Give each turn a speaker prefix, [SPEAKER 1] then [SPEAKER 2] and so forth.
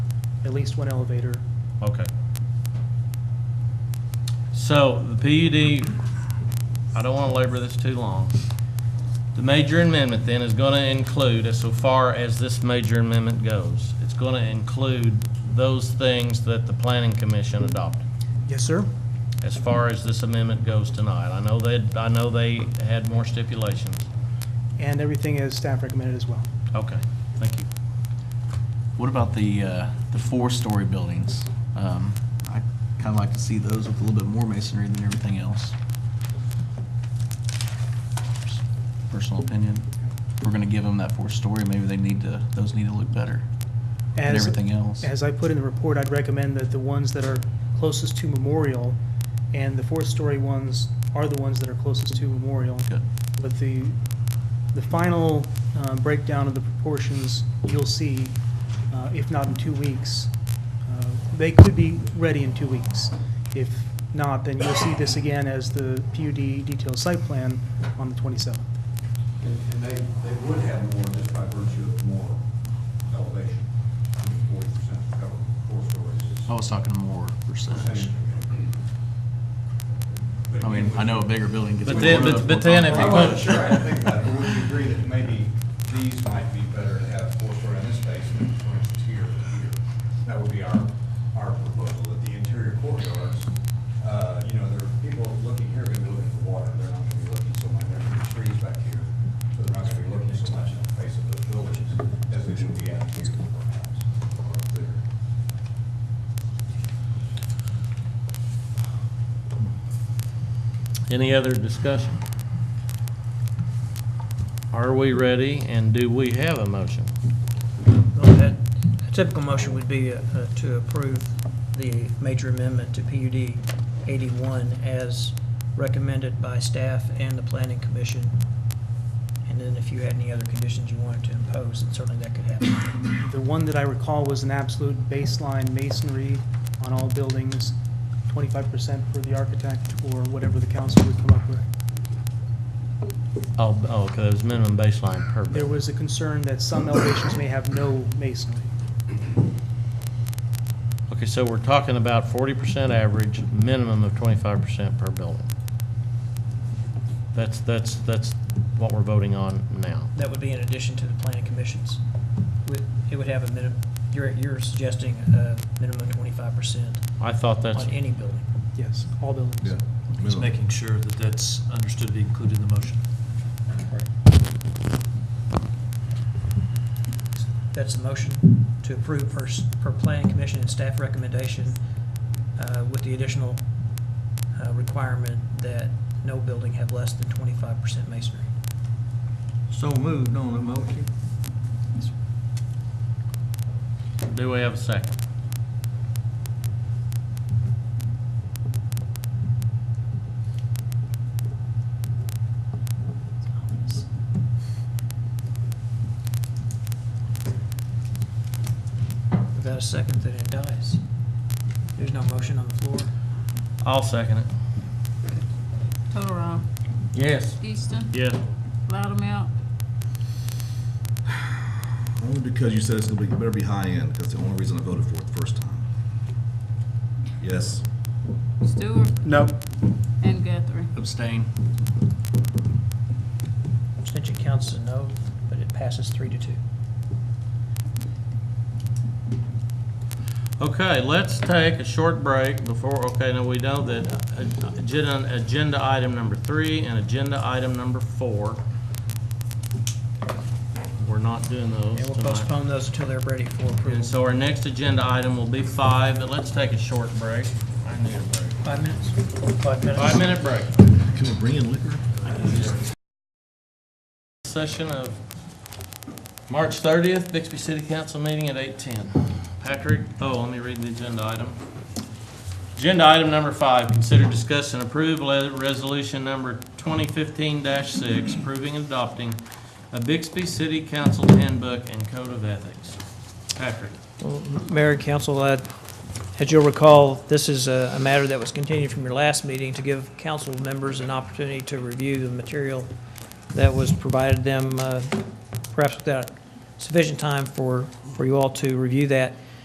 [SPEAKER 1] at least one elevator.
[SPEAKER 2] Okay. So, the PUD, I don't want to labor this too long. The major amendment then is going to include, as so far as this major amendment goes, it's going to include those things that the planning commission adopted,
[SPEAKER 1] Yes, sir?
[SPEAKER 2] as far as this amendment goes tonight. I know they, I know they had more stipulations.
[SPEAKER 1] And everything is staff recommended as well.
[SPEAKER 2] Okay, thank you.
[SPEAKER 3] What about the, uh, the four-story buildings? Um, I kind of like to see those with a little bit more masonry than everything else. Personal opinion. If we're gonna give them that four-story, maybe they need to, those need to look better than
[SPEAKER 1] As-
[SPEAKER 3] everything else.
[SPEAKER 1] As I put in the report, I'd recommend that the ones that are closest to Memorial and the fourth-story ones are the ones that are closest to Memorial.
[SPEAKER 3] Good.
[SPEAKER 1] But the, the final uh, breakdown of the proportions, you'll see, uh, if not in two weeks. Uh, They could be ready in two weeks. If not, then you'll see this again as the PUD detailed site plan on the 27th.
[SPEAKER 4] And and they, they would have more just by virtue of more elevation, forty percent cover, four stories. is
[SPEAKER 3] I was talking more percentage.
[SPEAKER 4] percentage. But
[SPEAKER 3] I mean,
[SPEAKER 4] again,
[SPEAKER 3] I know a bigger building gets.
[SPEAKER 2] But
[SPEAKER 3] more
[SPEAKER 2] then-
[SPEAKER 3] love,
[SPEAKER 2] but-
[SPEAKER 3] more
[SPEAKER 2] but then
[SPEAKER 3] time.
[SPEAKER 2] if
[SPEAKER 4] I
[SPEAKER 2] you
[SPEAKER 4] wasn't sure, I had to think about it, but would you agree that maybe these might be better to have four story in this space than four inches here or here? That would be our, our proposal, that the interior courtyards, uh, you know, there are people looking here are gonna be looking for water, they're not gonna be looking so much, there are gonna be trees back here, so they're not gonna be looking so much in the face of those buildings as they would be out here perhaps, or up there.
[SPEAKER 2] Any other discussion? Are we ready and do we have a motion?
[SPEAKER 5] Well, that- A typical motion would be uh, uh, to approve the major amendment to PUD 81 as recommended by staff and the planning commission. And then if you had any other conditions you wanted to impose, then certainly that could happen.
[SPEAKER 1] The one that I recall was an absolute baseline masonry on all buildings, 25% for the architect or whatever the council would come up with.
[SPEAKER 2] Oh, oh, okay, there's minimum baseline per
[SPEAKER 1] There
[SPEAKER 2] building.
[SPEAKER 1] was a concern that some elevations may have no masonry.
[SPEAKER 2] Okay, so we're talking about forty percent average, minimum of twenty-five percent per building. That's, that's, that's what we're voting on now.
[SPEAKER 5] That would be in addition to the planning commissions. Would- It would have a minimum, you're, you're suggesting a minimum of 25%
[SPEAKER 2] I thought that's,
[SPEAKER 5] on any building.
[SPEAKER 1] Yes, all buildings.
[SPEAKER 6] Just making sure that that's understood to be included in the motion.
[SPEAKER 5] That's the motion to approve per, s- per planning commission and staff recommendation uh, with the additional uh, requirement that no building have less than twenty-five percent masonry.
[SPEAKER 7] So moved on the motion.
[SPEAKER 2] do we have a second?
[SPEAKER 5] Without a second, then it dies. There's no motion on the floor.
[SPEAKER 2] I'll second it.
[SPEAKER 8] Totorow,
[SPEAKER 2] Yes.
[SPEAKER 8] Easton,
[SPEAKER 2] Yes.
[SPEAKER 8] Loudmout,
[SPEAKER 9] Only because you said it's gonna be, it better be high end, that's the only reason I voted for it the first time. Yes.
[SPEAKER 8] Stewart,
[SPEAKER 1] No.
[SPEAKER 8] and Guthrie.
[SPEAKER 3] Abstain.
[SPEAKER 5] Abstention counts as a no, but it passes three to two.
[SPEAKER 2] Okay, let's take a short break before, okay, now we know that uh, agenda, agenda item number three and agenda item number four. We're not doing those
[SPEAKER 5] And we'll
[SPEAKER 2] tonight.
[SPEAKER 5] postpone those until they're ready for
[SPEAKER 2] And
[SPEAKER 5] approval.
[SPEAKER 2] so our next agenda item will be five, but let's take a short break. I need a break.
[SPEAKER 5] Five minutes? Five minutes.
[SPEAKER 2] Five-minute break.
[SPEAKER 9] Can we bring in liquor?
[SPEAKER 2] Session of March thirtieth, Bixby City Council meeting at eight-ten. Patrick, oh, let me read the agenda item. Agenda item number five, consider discuss and approve le- resolution number twenty fifteen six, approving and adopting a Bixby City Council handbook and code of ethics. Patrick,
[SPEAKER 5] Well, Mayor and council, uh, as you'll recall, this is a a matter that was continued from your last meeting to give council members an opportunity to review the material that was provided them, uh, perhaps without sufficient time for, for you all to review that.